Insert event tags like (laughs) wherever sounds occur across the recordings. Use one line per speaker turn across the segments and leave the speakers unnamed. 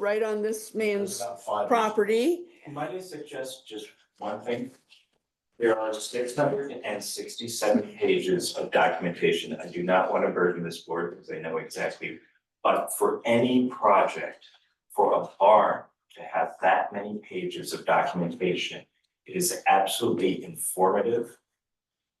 right on this
There's
man's
about five.
property.
Might I suggest just one thing? There are six hundred and sixty-seven pages of documentation. I do not want to burden this board because I know exactly. But for any project, for a barn to have that many pages of documentation it is absolutely informative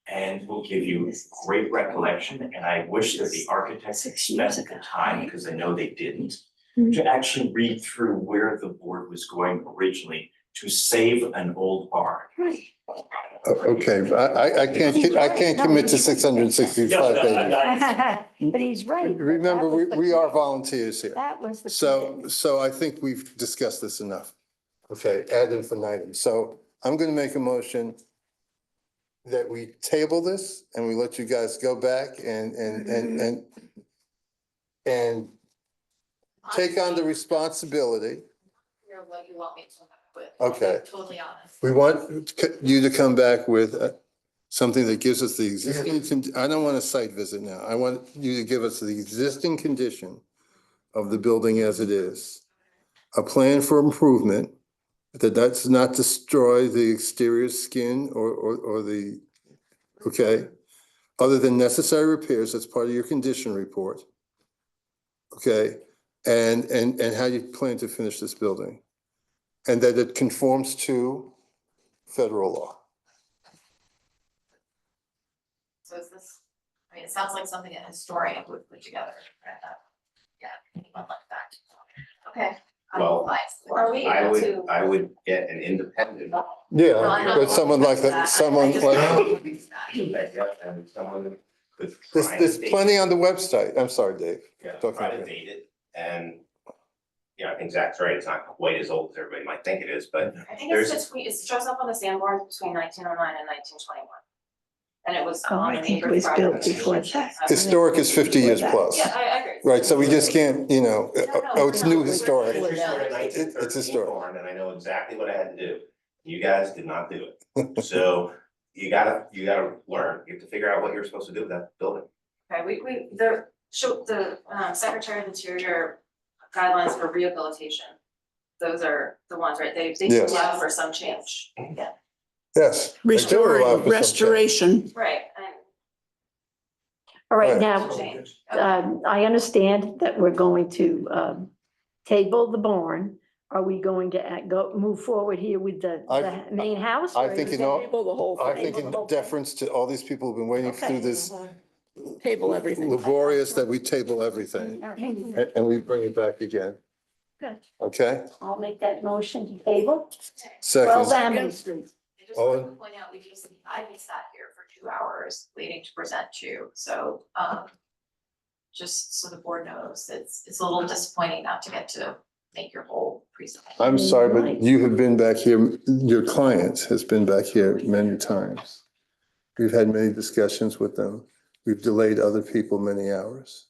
and will give you great recollection. And I wish that the architects
Six
spent
years
the
ago,
time,
right?
because I know they didn't,
Mm-hmm.
Mhm.
to actually read through where the board was going originally to save an old barn.
Right. (laughs)
Okay, I, I, I can't, ki- I can't commit to six hundred and sixty-five pages.
But he's right.
Remember, we, we are volunteers here.
That was the.
So, so I think we've discussed this enough. Okay, ad infinitum. So I'm going to make a motion that we table this and we let you guys go back and, and, and, and and take on the responsibility.
Hear what you want me to come up with.
Okay.
I'm Totally honest.
We want c- you to come back with uh, something that gives us the existing, con- I don't want a site visit now. I want you to give us the existing condition of the building as it is. A plan for improvement that does not destroy the exterior skin or, or, or the, okay? Other than necessary repairs, that's part of your condition report. Okay, and, and, and how you plan to finish this building. And that it conforms to federal law.
So is this, I mean, it sounds like something a historian would put together. right? Yeah, anyone like that. Okay. I will
Well,
advise. Are we
I
able
would,
to?
I would get an independent.
No, I'm
Yeah,
not
but someone
open
like
to I- I
that, someone
just
like,
don't agree with that.
that, yeah, And someone could
there's,
try
there's
and date-
plenty on the website. I'm sorry, Dave.
Yeah,
talking
try to
about.
date it and. Yeah, I think Zach's right, it's not quite as old as everybody might think it is, but
I think it's
There's-
just, we- it shows up on the sandboard between nineteen oh nine and nineteen twenty-one. And it was
Oh,
on
I
an
think it
acre
was built
project.
before that.
Historic is fifty years plus,
Yeah, I I agree.
right? So we just can't, you know,
No, no,
oh, it's
no,
new
we're-
historic.
we're-
It's
It- it's a story.
barn, And I know exactly what I had to do. You guys did not do it. So you gotta, you gotta learn. You have to figure out what you're supposed to do with that building.
Okay, we, we, the, show, the, um, Secretary of Interior guidelines for rehabilitation. Those are the ones, right? They, they do
Yes.
allow for some change.
Yes. They do allow for
Restoring,
some
restoration.
Right, and
All right,
Right.
now,
some change.
um, I understand that we're going to, um, table the barn. Are we going to act- go, move forward here with the,
I-
the main house?
I
or
think
is
in all-
it-
Table the whole
I
thing.
think in deference to all these people who've been waiting through this
Table everything.
laborious that we table everything
Mm-hmm.
Okay,
and, and we bring it back again.
good.
Okay,
I'll make that motion to table. Well,
second,
Amity Street.
I just
Owen?
wanted to point out, we just, I just sat here for two hours waiting to present to you, so, um. Just so the board knows, it's, it's a little disappointing not to get to make your whole presentation.
I'm sorry, but you have been back here, your client has been back here many times. We've had many discussions with them. We've delayed other people many hours.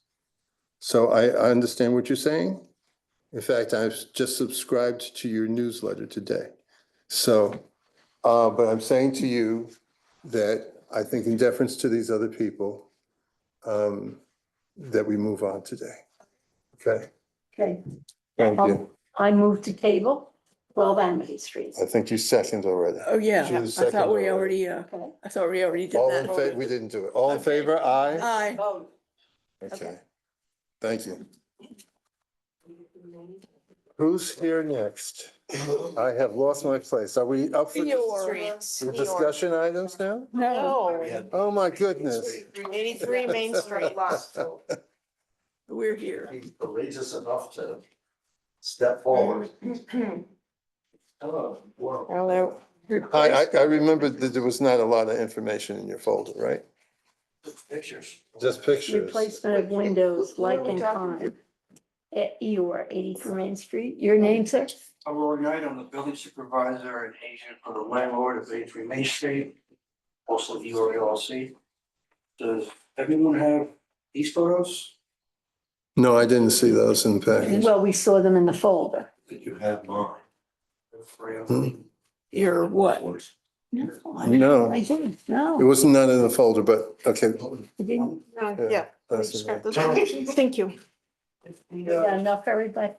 So I, I understand what you're saying. In fact, I've just subscribed to your newsletter today. So, uh, but I'm saying to you that I think in deference to these other people, um, that we move on today. Okay,
Okay,
thank you.
I move to table twelve Amity Street.
I think you seconded already.
Oh, yeah.
She was
I thought
second
we already,
already.
uh,
Okay.
I thought we already did
All in favor,
that.
we didn't do it. All in favor, aye?
Aye.
Okay. Thank you. Who's here (coughs) next? I have lost my place. Are we up for dis- for discussion items now?
No,
Oh, my goodness.
Eighty-three Main Street
(laughs)
lost.
we're here.
He's courageous enough to step forward.
Mm-hmm.
Oh, Hello. Hello.
I, I, I remembered that there was not a lot of information in your folder, right?
Pictures.
Just pictures.
Replacement of windows like in kind. At Eeyore, eighty-three Main Street. Your name, sir?
I'm Roy Knight, I'm the building supervisor and agent for the landlord of eighty-three Main Street, also the URI LLC. Does everyone have these photos?
No, I didn't see those in the package.
Well, we saw them in the folder.
That you have mine. The three of them.
You're what?
No, I didn't.
No,
I
it
didn't, no,
was not in the folder, but, okay.
I didn't.
Yeah. that's-
Thank you.
We got enough for everybody.